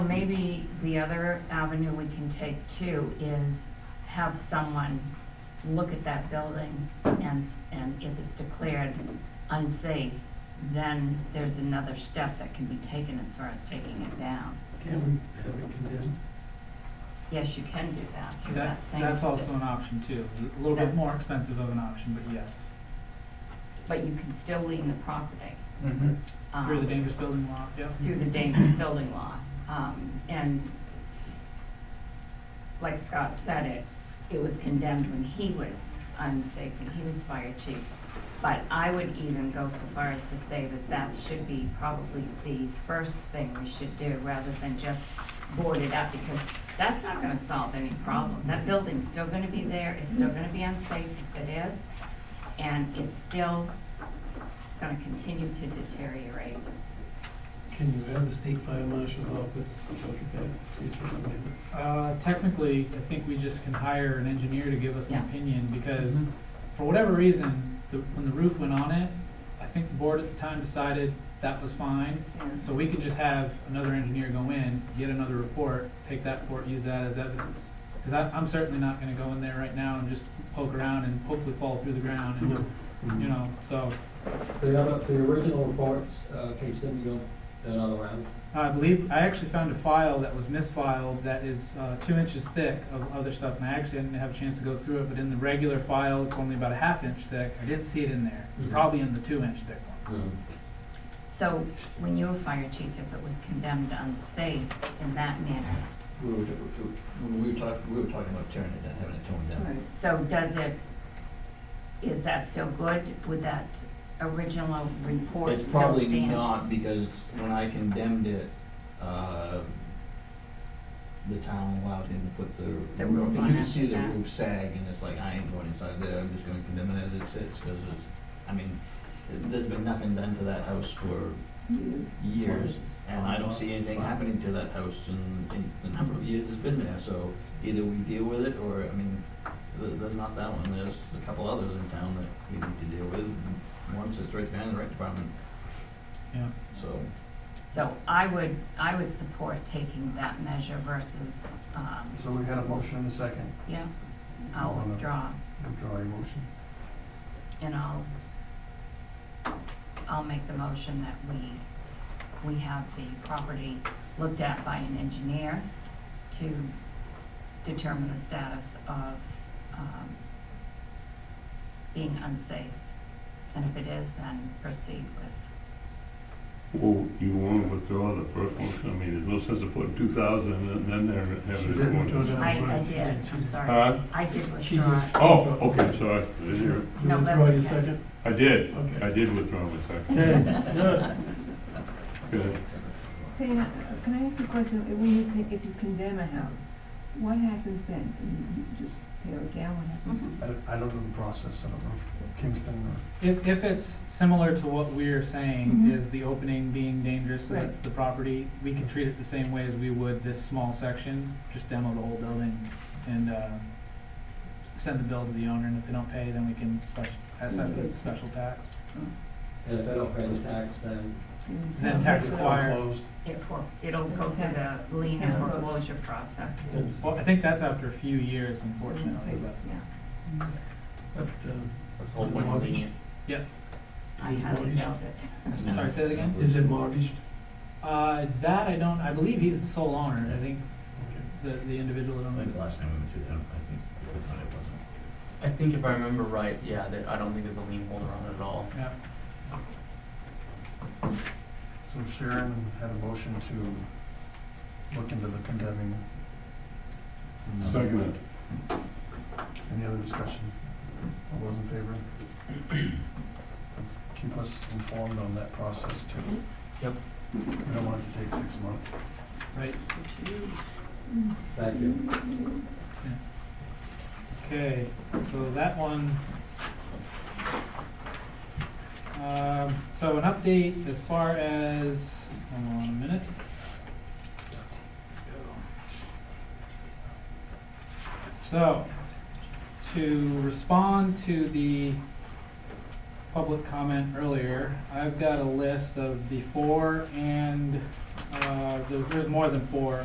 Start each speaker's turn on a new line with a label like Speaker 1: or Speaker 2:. Speaker 1: maybe the other avenue we can take too is have someone look at that building and, and if it's declared unsafe, then there's another step that can be taken as far as taking it down.
Speaker 2: Can we have it condemned?
Speaker 1: Yes, you can do that through
Speaker 3: That,
Speaker 1: that same
Speaker 3: that's also
Speaker 1: step.
Speaker 3: an option too, a little bit more expensive of an option, but yes.
Speaker 1: But you can still lean the property. um,
Speaker 3: Through the dangerous building law, yeah.
Speaker 1: through the dangerous building law. Um, and like Scott said it, it was condemned when he was unsafe, when he was fire chief. But I would even go so far as to say that that should be probably the first thing we should do rather than just board it up because that's not gonna solve any problem. That building's still gonna be there, it's still gonna be unsafe if it is, and it's still gonna continue to deteriorate.
Speaker 2: Can you have the state fire marshal's office look at that, see if they can do it?
Speaker 3: Uh, technically, I think we just can hire an engineer to give us an
Speaker 1: Yeah. Mm-hmm.
Speaker 3: opinion, because for whatever reason, the, when the roof went on it, I think the board at the time decided that was fine, so we can just have another engineer go in, get another report, take that report, use that as evidence. Cause I, I'm certainly not gonna go in there right now and just poke around and hopefully fall through the ground and,
Speaker 4: Mm-hmm.
Speaker 3: you know, so,
Speaker 4: The other, the original reports, uh, can you send me another round?
Speaker 3: I believe, I actually found a file that was misfiled that is uh, two inches thick of other stuff, and I actually didn't have a chance to go through it, but in the regular file, it's only about a half inch thick. I didn't see it in there. It's
Speaker 4: Mhm.
Speaker 3: probably in the two inch thick one.
Speaker 4: Hmm.
Speaker 1: So when you were fire chief, if it was condemned unsafe in that manner,
Speaker 5: We were, we were talking, we were talking about tearing it down, having it torn down.
Speaker 1: so does it, is that still good? Would that original report
Speaker 5: It's
Speaker 1: still
Speaker 5: probably
Speaker 1: stand?
Speaker 5: not, because when I condemned it, uh, the town allowed him to put the.
Speaker 1: The roof on
Speaker 5: You can
Speaker 1: after
Speaker 5: see the
Speaker 1: that.
Speaker 5: roof sag, and it's like, I ain't going inside there, I'm just gonna condemn it as it sits, because it's, I mean, there's been nothing done to that house for years, and I don't see anything happening to that house in, in the number of years it's been there, so either we deal with it, or, I mean, th- there's not that one, there's a couple others in town that we need to deal with, one sits right behind the rec department,
Speaker 3: Yeah.
Speaker 5: so.
Speaker 1: So I would, I would support taking that measure versus, um,
Speaker 6: So we got a motion and a second.
Speaker 1: yeah, I'll withdraw
Speaker 6: Withdraw your motion.
Speaker 1: and I'll, I'll make the motion that we, we have the property looked at by an engineer to determine the status of, um, being unsafe. And if it is, then proceed with,
Speaker 7: Well, you want to withdraw the first one, I mean, there's no sense of putting two thousand and then there and
Speaker 2: She
Speaker 7: having
Speaker 2: didn't
Speaker 7: it
Speaker 2: do
Speaker 7: going.
Speaker 2: that.
Speaker 1: I, I did, I'm sorry.
Speaker 7: Huh?
Speaker 1: I did
Speaker 2: She
Speaker 1: withdraw.
Speaker 2: just.
Speaker 7: Oh, okay, sorry, I didn't hear it.
Speaker 2: You
Speaker 1: No, that's
Speaker 2: withdraw your
Speaker 1: okay.
Speaker 2: second?
Speaker 7: I did,
Speaker 2: Okay.
Speaker 7: I did withdraw my second.
Speaker 2: Okay, good.
Speaker 7: Good.
Speaker 8: Can I ask- can I ask a question? If we, con- if you condemn a house, what happens then? You you just tear it down, what happens?
Speaker 6: I, I don't know the process, I don't know. Kingston, uh,
Speaker 3: If, if it's similar to what we're saying,
Speaker 8: Mhm.
Speaker 3: is the opening being dangerous to
Speaker 8: Right.
Speaker 3: the property, we can treat it the same way as we would this small section, just demo the whole building and, uh, send the bill to the owner, and if they don't pay, then we can special, assess it as a special tax.
Speaker 4: And if I don't pay the tax, then
Speaker 8: And
Speaker 3: then tax
Speaker 8: it's-
Speaker 3: acquired. Fire.
Speaker 6: closed.
Speaker 1: Mm-hmm. It for, it'll go through the lien and foreclosure process.
Speaker 2: uh,
Speaker 3: Well, I think that's after a few years, unfortunately, but.
Speaker 1: Yeah.
Speaker 2: But, um,
Speaker 5: That's
Speaker 2: whole point of being-
Speaker 1: I highly doubt it.
Speaker 3: I'm Sorry, say that again?
Speaker 2: is it mortgaged?
Speaker 3: Uh, that I don't, I believe he's the sole owner, I think,
Speaker 2: Okay.
Speaker 3: the, the individual that
Speaker 5: I
Speaker 3: owned
Speaker 5: think
Speaker 3: it.
Speaker 5: the last time we went through that, I think, we thought it wasn't.
Speaker 9: I think if I remember right, yeah, that I don't think there's a lien holder on it at all.
Speaker 3: Yeah,
Speaker 6: So Sharon had a motion to look into the condemning.
Speaker 7: Second,
Speaker 6: Any other discussion? All those in favor? Let's Keep us informed on that process too.
Speaker 9: Yep.
Speaker 6: We don't want it to take six months.
Speaker 3: right,
Speaker 4: thank you.
Speaker 3: okay, so that one. Um, so an update as far as, hold on a minute. So, to respond to the public comment earlier, I've got a list of the four and, uh, there- there's more than four